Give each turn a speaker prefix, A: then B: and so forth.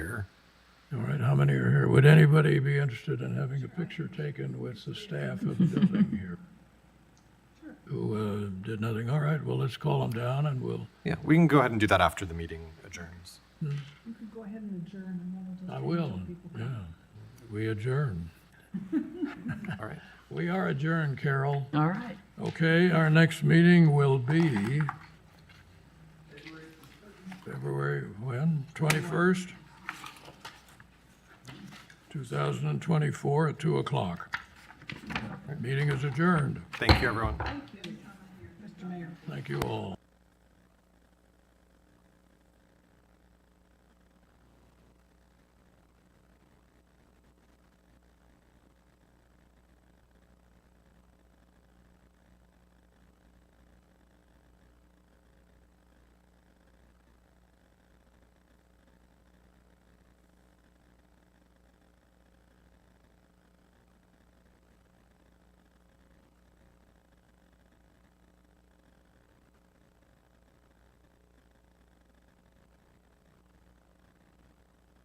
A: All right, how many are here? Would anybody be interested in having a picture taken with the staff of the building here? Who uh, did nothing? All right, well, let's call them down and we'll,
B: Yeah, we can go ahead and do that after the meeting adjourns.
C: You could go ahead and adjourn and then we'll just.
A: I
C: wait
A: will,
C: until people
A: yeah.
C: come.
A: We adjourn.
B: All right.
A: We are adjourned, Carol.
D: All right.
A: Okay, our next meeting will be February, when? 21st? 2024 at 2 o'clock. Meeting is adjourned.
B: Thank you, everyone.
C: Mr. Mayor.
A: Thank you all.